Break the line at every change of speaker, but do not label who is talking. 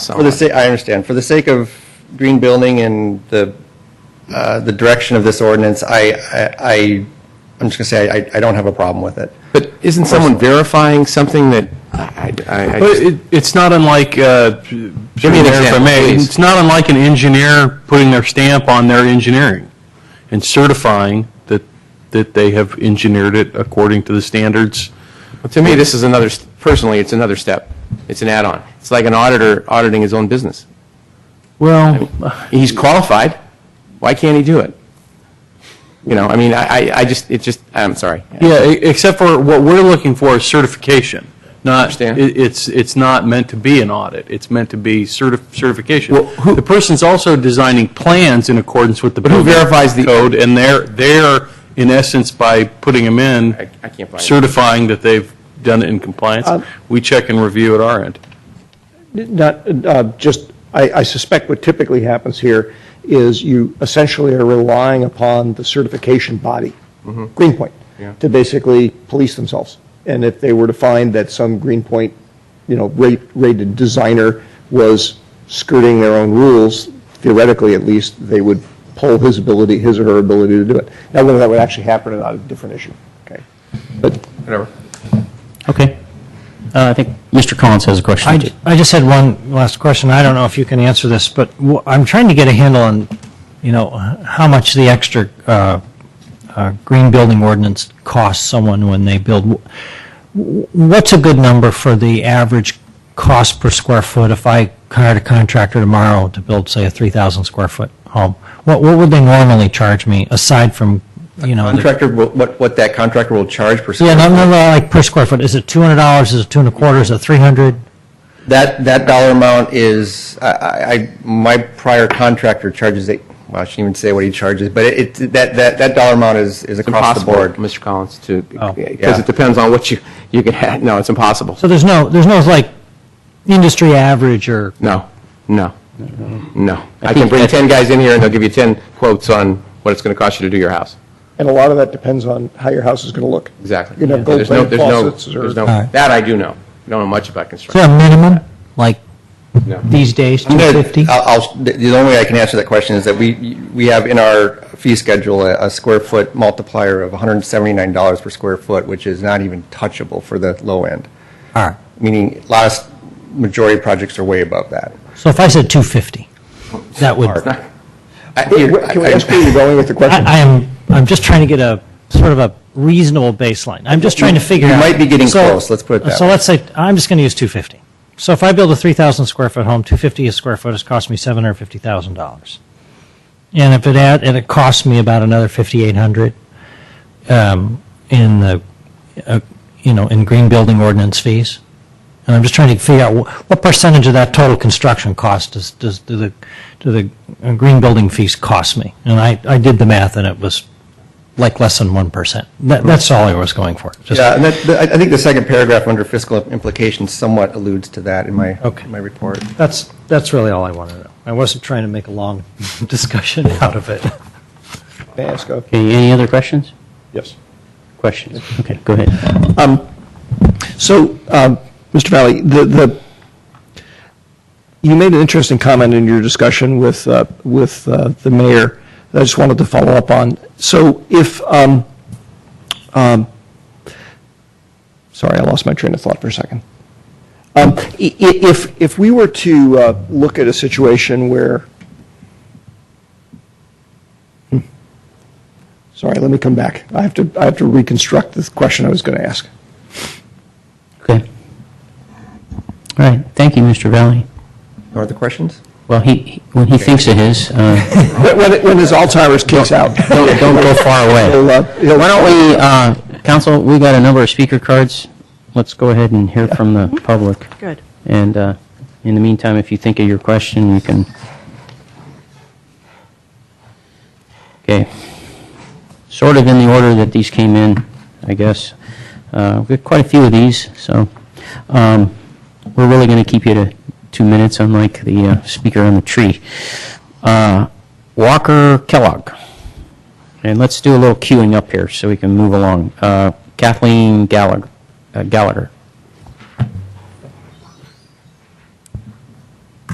For the
somewhat.
sake, I understand. For the sake of green building and the, uh, the direction of this ordinance, I, I- I, I'm just going to say, I, I don't have a problem with it.
But isn't someone verifying something that, I, I, I- I
But
just-
it, it's not unlike, uh,
me an
if I
example,
may,
please.
it's not unlike an engineer putting their stamp on their engineering and certifying that, that they have engineered it according to the standards.
to me, this is another, s- personally, it's another step. It's an add-on. It's like an auditor auditing his own business.
Well,
He's qualified. Why can't he do it? You know, I mean, I, I- I just, it just, I'm sorry.
yeah, e- except for what we're looking for is certification, not,
Understand.
it- it's, it's not meant to be an audit, it's meant to be certi- certification.
Well, who-
The person's also designing plans in accordance with the.
who
building
verifies the-
Code, and they're, they're, in essence, by putting them in.
I- I can't buy it. Uh,
Certifying that they've done it in compliance. We check and review at our end.
Not, uh, just, I I suspect what typically happens here is you essentially are relying upon the certification body,
Mm-hmm.
Greenpoint, to basically police themselves. And if they were to find that some Greenpoint, you know, rate- rated designer was skirting their own rules, theoretically at least, they would pull his ability, his or her ability to do it. Now, whether that would actually happen or not, is a different issue, okay? But
Whatever.
Okay. Uh, I think Mr. Collins has a question.
I, ju- I just had one last question. I don't know if you can answer this, but wh- I'm trying to get a handle on, you know, h- how much the extra uh, uh, green building ordinance costs someone when they build. Wh- What's a good number for the average cost per square foot if I hired a contractor tomorrow to build, say, a 3,000 square foot home? What, what would they normally charge me aside from, you know? the-
Contractor, will- what, what that contractor will charge per
Yeah,
square
no, no,
foot.
no, like per square foot. Is it $200? Is it two and a quarter? Is it 300?
That, that dollar amount is, I- I, I, my prior contractor charges, eight- well, I shouldn't even say what he charges, but it, it- that, that, that dollar amount is, is across the
Impossible,
board.
Mr. Collins, to, because
Yeah.
it depends on what you, you can have. No, it's impossible.
So there's no, there's no like industry average or,
No, no, no. I can
think
bring
that-
10 guys in here and they'll give you 10 quotes on what it's going to cost you to do your house.
And a lot of that depends on how your house is going to look.
Exactly.
You're going to have
There's no-
gold-plated
there's no-
faucets or...
there's no-
Alright.
That I do know. I don't know much about
is there
construction.
a minimum, like
No.
these days,
I'm gonna-
250?
I'll- I'll, the the only way I can answer that question is that we, we have in our fee schedule a, a square foot multiplier of $179 per square foot, which is not even touchable for the low end,
All right,
meaning last majority of projects are way above that.
so if I said 250, that would, I
I-
Wait, wait, Can we ask where you're going with the question?
I am, I'm just trying to get a, sort of a reasonable baseline. I'm just trying to figure
You
out.
might be getting
So-
close, let's put it that
So
way.
let's say, I'm just going to use 250. So if I build a 3,000 square foot home, 250 a square foot has cost me $750,000. And if it add, and it costs me about another 5,800 um, in the, uh, you know, in green building ordinance fees. And I'm just trying to figure out wh- what percentage of that total construction cost does, does, do the, do the uh, green building fees cost me? And I, I did the math and it was like less than 1%. That, that's all I was going for. Just-
Yeah, and that, the- I I think the second paragraph under fiscal implications somewhat alludes to that in my,
Okay.
in my report.
That's, that's really all I wanted to know. I wasn't trying to make a long discussion out of it.
May I ask a-
Okay, any other questions?
Yes.
Questions? Okay, go ahead.
Um, So, um, Mr. Valley, the, the, you made an interesting comment in your discussion with, uh, with uh, the mayor that I just wanted to follow up on. So if, um, um, sorry, I lost my train of thought for a second. Um, i- i- If, if we were to uh, look at a situation where, Hmm. sorry, let me come back. I have to, I have to reconstruct the question I was going to ask.
Okay. All right, thank you, Mr. Valley.
Are there questions?
Well, he, he- when he thinks of his, uh,
When- When, when his Alzheimer's kicks out.
don't don't go far away.
He'll, uh, he'll-
Why don't we, uh, council, we got a number of speaker cards. Let's go ahead and hear from the public.
Good.
And uh, in the meantime, if you think of your question, you can... Okay. Sort of in the order that these came in, I guess. Uh, We've got quite a few of these, so um, we're really going to keep you to two minutes, unlike the uh, speaker on the tree. Uh, Walker Kellogg. And let's do a little queuing up here so we can move along. Uh, Kathleen Gallagher. uh, Gallagher.